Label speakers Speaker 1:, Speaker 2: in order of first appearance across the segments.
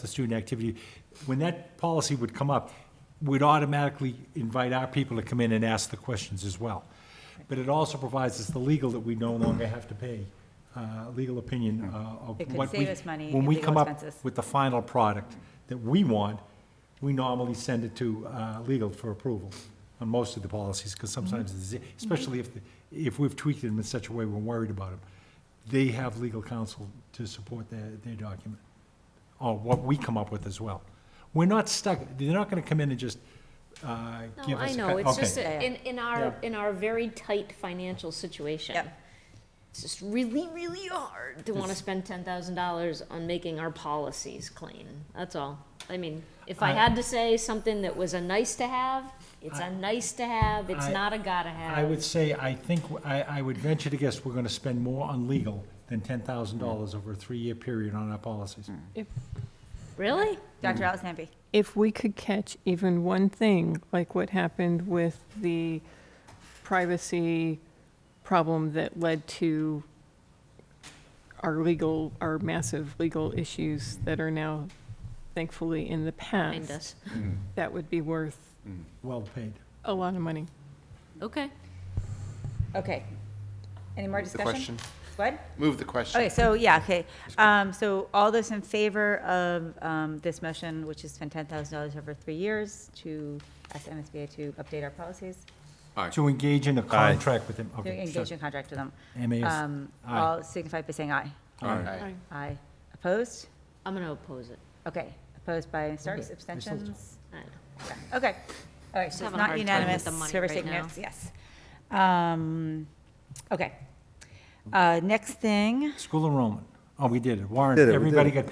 Speaker 1: the student activity, when that policy would come up, we'd automatically invite our people to come in and ask the questions as well. But it also provides us the legal that we no longer have to pay, uh, legal opinion uh, of
Speaker 2: It could
Speaker 1: what we.
Speaker 2: save us money
Speaker 1: When
Speaker 2: in
Speaker 1: we
Speaker 2: legal
Speaker 1: come up
Speaker 2: expenses.
Speaker 1: with the final product that we want, we normally send it to uh, legal for approval on most of the policies, because sometimes, it's-
Speaker 2: Mm-hmm.
Speaker 1: especially if, the- if we've tweaked them in such a way we're worried about them, they have legal counsel to support their, their document or what we come up with as well. We're not stuck, they're not gonna come in and just, uh,
Speaker 3: No,
Speaker 1: give
Speaker 3: I
Speaker 1: us. a
Speaker 3: know,
Speaker 1: cut-
Speaker 3: it's
Speaker 1: okay.
Speaker 3: just,
Speaker 2: Yeah,
Speaker 3: a-
Speaker 2: yeah.
Speaker 3: in, in our,
Speaker 1: Yeah.
Speaker 3: in our very tight financial situation.
Speaker 2: Yep.
Speaker 3: It's just really, really hard to wanna spend ten thousand dollars on making our policies clean, that's all. I mean, if I
Speaker 1: I-
Speaker 3: had to say something that was a nice to have, it's a nice to have, it's
Speaker 1: I-
Speaker 3: not a gotta have.
Speaker 1: I would say, I think, I, I would venture to guess we're gonna spend more on legal than ten thousand
Speaker 4: Mm.
Speaker 1: dollars over a three-year period on our policies.
Speaker 3: Mm. Really?
Speaker 2: Dr. Alice Namby.
Speaker 5: if we could catch even one thing, like what happened with the privacy problem that led to our legal, our massive legal issues that are now thankfully in the
Speaker 3: Mind
Speaker 5: past,
Speaker 3: us,
Speaker 5: that would be worth
Speaker 1: Well paid.
Speaker 5: a lot of money.
Speaker 3: okay.
Speaker 2: Okay. Any more
Speaker 6: Move the
Speaker 2: discussion? What?
Speaker 6: Move the question.
Speaker 2: Okay, so, yeah, okay. Um, so all those in favor of, um, this motion, which is spend ten thousand dollars over three years to ask MSBA to update our policies,
Speaker 1: To engage in a contract with them,
Speaker 2: to
Speaker 1: okay.
Speaker 2: engage
Speaker 1: sure.
Speaker 2: in contract with them.
Speaker 1: MAS.
Speaker 2: Um,
Speaker 1: Aye.
Speaker 2: all signify by saying aye.
Speaker 6: Aye.
Speaker 2: Aye. Opposed?
Speaker 3: I'm gonna oppose it.
Speaker 2: Okay. Opposed by Starks,
Speaker 1: Okay, I still do.
Speaker 2: abstentions?
Speaker 3: I don't know.
Speaker 2: Okay. All right, so it's
Speaker 3: Having a
Speaker 2: not
Speaker 3: hard time with
Speaker 2: unanimous,
Speaker 3: the money
Speaker 2: so we're
Speaker 3: right
Speaker 2: taking
Speaker 3: now.
Speaker 2: notes, yes. Um, okay. Uh, next thing,
Speaker 1: School enrollment, oh, we did it, warrant,
Speaker 4: Did it, we did
Speaker 1: everybody
Speaker 4: it.
Speaker 1: got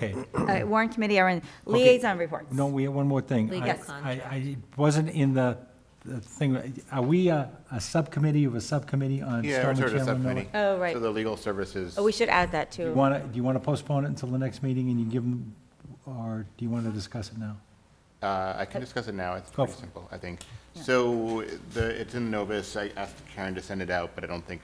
Speaker 1: paid.
Speaker 2: uh, warrant committee, our liaison reports.
Speaker 1: No, we have one more thing.
Speaker 3: Legal
Speaker 1: I- I,
Speaker 3: contract.
Speaker 1: I it wasn't in the, the thing, are we a, a subcommittee of a subcommittee on
Speaker 6: Yeah,
Speaker 1: Stone
Speaker 6: it's
Speaker 1: and
Speaker 6: sort of
Speaker 1: Chandler Miller?
Speaker 6: subcommittee.
Speaker 2: Oh, right.
Speaker 6: So the legal services.
Speaker 2: Oh, we should add that
Speaker 1: Do you
Speaker 2: too.
Speaker 1: want to, do you want to postpone it until the next meeting and you give them, or do you want to discuss it now?
Speaker 6: Uh, I can discuss it now, it's
Speaker 1: Go
Speaker 6: pretty
Speaker 1: for it.
Speaker 6: simple, I think. So the, it's in Novus, I asked Karen to send it out, but I don't think,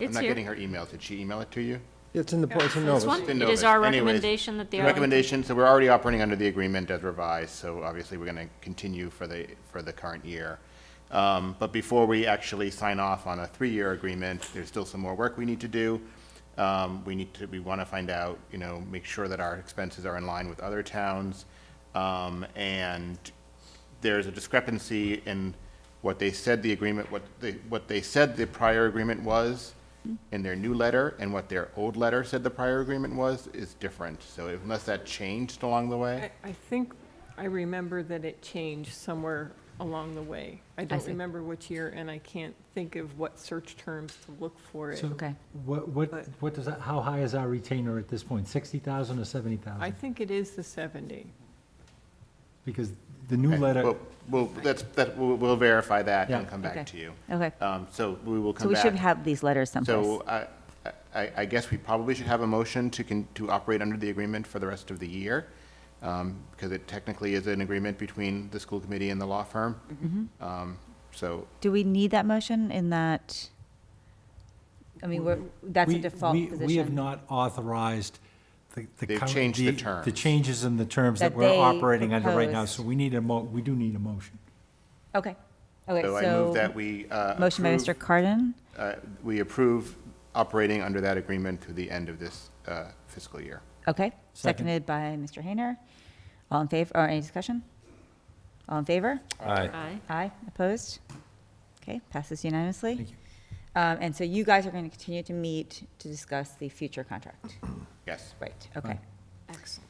Speaker 6: I'm
Speaker 3: It's
Speaker 6: not
Speaker 3: here.
Speaker 6: getting her email, did she email it to you?
Speaker 4: It's in the, it's in Novus.
Speaker 3: This one,
Speaker 6: It's in
Speaker 3: it is
Speaker 6: Novus.
Speaker 3: our
Speaker 6: Anyways,
Speaker 3: recommendation that the
Speaker 6: the
Speaker 3: Arlington
Speaker 6: Recommendation, so we're already operating under the agreement as revised, so obviously we're going to continue for the, for the current year. Um, But before we actually sign off on a three-year agreement, there's still some more work we need to do. Um, We need to, we want to find out, you know, make sure that our expenses are in line with other towns. Um, And there's a discrepancy in what they said the agreement, what they, what they said the prior agreement was in their new letter and what their old letter said the prior agreement was is different. So unless that changed along the way,
Speaker 5: I, I think I remember that it changed somewhere along the way. I don't
Speaker 3: see.
Speaker 5: remember which year, and I can't think of what search terms to look for it.
Speaker 1: So
Speaker 2: Okay.
Speaker 1: What, what, what does, that- how high is our retainer at this point? 60,000 or
Speaker 5: I
Speaker 1: 70,000?
Speaker 5: think it is the 70.
Speaker 1: Because the new
Speaker 6: Okay,
Speaker 1: letter,
Speaker 6: Well, well, that's, that, we'll, we'll verify that and
Speaker 1: Yeah.
Speaker 6: come
Speaker 2: Okay.
Speaker 6: back to you.
Speaker 2: Okay.
Speaker 6: Um, so we will
Speaker 2: So
Speaker 6: come
Speaker 2: we
Speaker 6: back.
Speaker 2: should have these letters someplace.
Speaker 6: So I, I, I guess we probably should have a motion to con, to operate under the agreement for the rest of the year. Um, because it technically is an agreement between the school committee and the law firm.
Speaker 2: Mm-hmm.
Speaker 6: Um, so
Speaker 2: Do we need that motion in that? I mean, we're, that's a
Speaker 1: we,
Speaker 2: default
Speaker 1: we-
Speaker 2: position.
Speaker 1: we have not authorized the, the.
Speaker 6: They've
Speaker 1: current-
Speaker 6: changed the
Speaker 1: The
Speaker 6: terms.
Speaker 1: changes in the terms that
Speaker 2: That
Speaker 1: we're
Speaker 2: they
Speaker 1: operating under right now,
Speaker 2: proposed.
Speaker 1: so we need a mo, we do need a motion.
Speaker 2: Okay. Okay,
Speaker 6: So I move
Speaker 2: so,
Speaker 6: that we uh,
Speaker 2: motion by Mr.
Speaker 6: approve,
Speaker 2: Cardon.
Speaker 6: uh, we approve operating under that agreement through the end of this uh, fiscal year.
Speaker 2: Okay,
Speaker 1: Second.
Speaker 2: seconded by Mr. Hayner. All in favor, or any discussion? All in favor?
Speaker 3: Aye.
Speaker 2: Aye, opposed? Okay, passes unanimously.
Speaker 1: Thank you.
Speaker 2: Um, and so you guys are going to continue to meet to discuss the future contract.
Speaker 6: Yes.
Speaker 2: Right, okay.
Speaker 3: Excellent.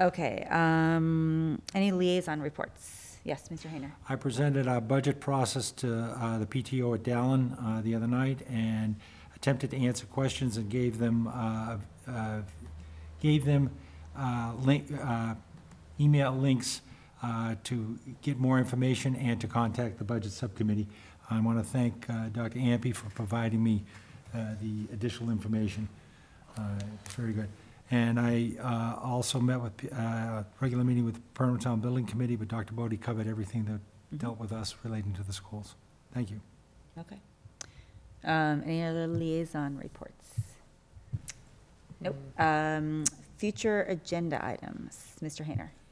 Speaker 2: Okay, um, any liaison reports? Yes, Mr. Hayner.
Speaker 1: I presented our budget process to uh, the PTO at Dallin uh, the other night and attempted to answer questions and gave them, uh, uh, gave them uh, link, uh, email links uh, to get more information and to contact the Budget Subcommittee. I want to thank uh, Dr. Ampe for providing me uh, the additional information. Uh, It's very good. And I uh, also met with, uh, regular meeting with Permanent Town Building Committee, but Dr. Bodie covered everything that dealt with us relating to the schools. Thank you.
Speaker 2: Okay. Um, any other liaison reports? Nope. Um, Future agenda items, Mr. Hayner.